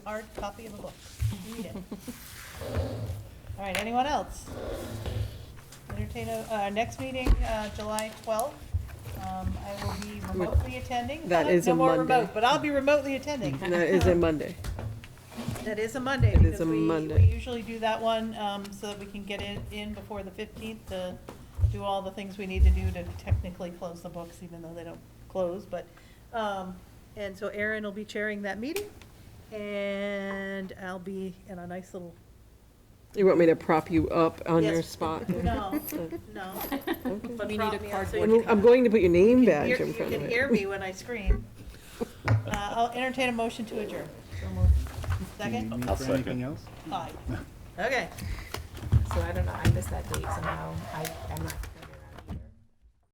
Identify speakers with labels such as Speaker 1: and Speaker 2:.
Speaker 1: hard copy of a book. Read it. All right, anyone else? Entertain, a- uh, next meeting, uh, July twelfth. Um, I will be remotely attending.
Speaker 2: That is
Speaker 1: No
Speaker 2: a
Speaker 1: more
Speaker 2: Monday.
Speaker 1: remote, But I'll be remotely attending.
Speaker 2: And that is a Monday.
Speaker 1: That is a Monday.
Speaker 2: It is
Speaker 1: because
Speaker 2: a
Speaker 1: we-
Speaker 2: Monday.
Speaker 1: We usually do that one, um, so that we can get it in before the fifteenth to do all the things we need to do to technically close the books, even though they don't close, but, um, and so Erin will be chairing that meeting, and I'll be in a nice little,
Speaker 2: You want me to prop you up on
Speaker 1: Yes.
Speaker 2: your spot?
Speaker 1: no, no.
Speaker 2: Okay.
Speaker 1: but
Speaker 3: We need a
Speaker 1: prop me up so you
Speaker 3: cardboard
Speaker 1: can-
Speaker 2: I'm going to put your name
Speaker 1: you can
Speaker 2: badge
Speaker 1: hear-
Speaker 2: in front of
Speaker 1: You
Speaker 2: it.
Speaker 1: can hear me when I scream. Uh, I'll entertain a motion to adjourn. So moved.
Speaker 4: Do you
Speaker 1: Second?
Speaker 4: need
Speaker 5: I'll
Speaker 4: for anything
Speaker 5: second.
Speaker 4: else?
Speaker 1: Aye. Okay.
Speaker 3: So I don't know, I missed that date somehow. I, I'm not